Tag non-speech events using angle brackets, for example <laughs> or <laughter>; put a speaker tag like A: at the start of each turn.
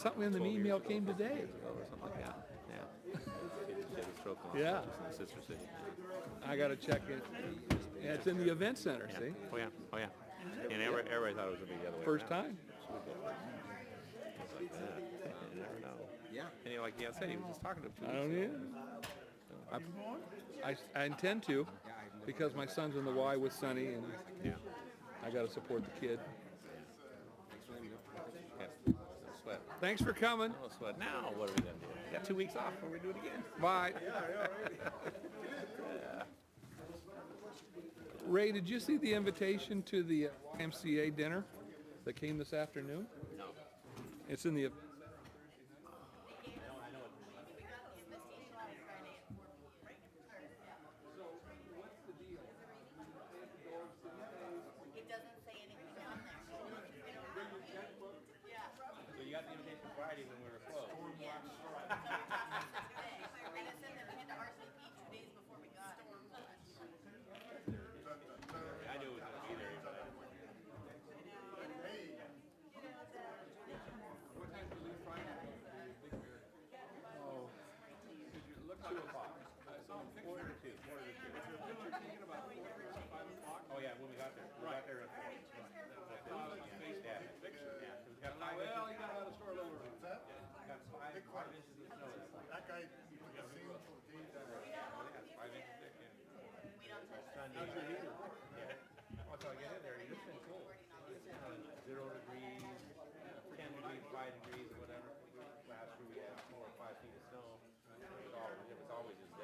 A: Something in the
B: 12 years
A: email
B: ago,
A: came
B: 15
A: today.
B: years ago or something like that.
A: Yeah,
B: Kids had a stroke and all
A: Yeah.
B: that, just in the sister city.
A: I gotta check it. Yeah, it's in the event center,
B: Yeah.
A: see?
B: Oh, yeah, oh, yeah. And everybody, everybody thought it was gonna be the other way
A: First
B: around.
A: time.
B: It's like that. You never know.
C: Yeah.
B: And you're like, yeah, I said, he was just talking to him two
A: I don't
B: weeks
A: either.
B: ago.
A: I, I intend to, because my son's in the Y with Sonny, and
B: Yeah.
A: I gotta support the kid.
B: Yeah. No sweat.
A: Thanks for coming.
B: No sweat. Now, what are we gonna do? We got two weeks off, we're gonna do it again.
A: Bye. <laughs> Ray, did you see the invitation to the MCA dinner that came this afternoon?
B: No.
A: It's in the,
D: It doesn't say anything on there.
B: So you got the invitation Friday when we were closed.
D: And it said that we had to RSVP two days before we got.
B: I knew it was gonna be there, but I didn't. Oh, yeah, when we got there, we got there at four. Yeah, 'cause we got five inches. Well, you got another store lower. Got five, five inches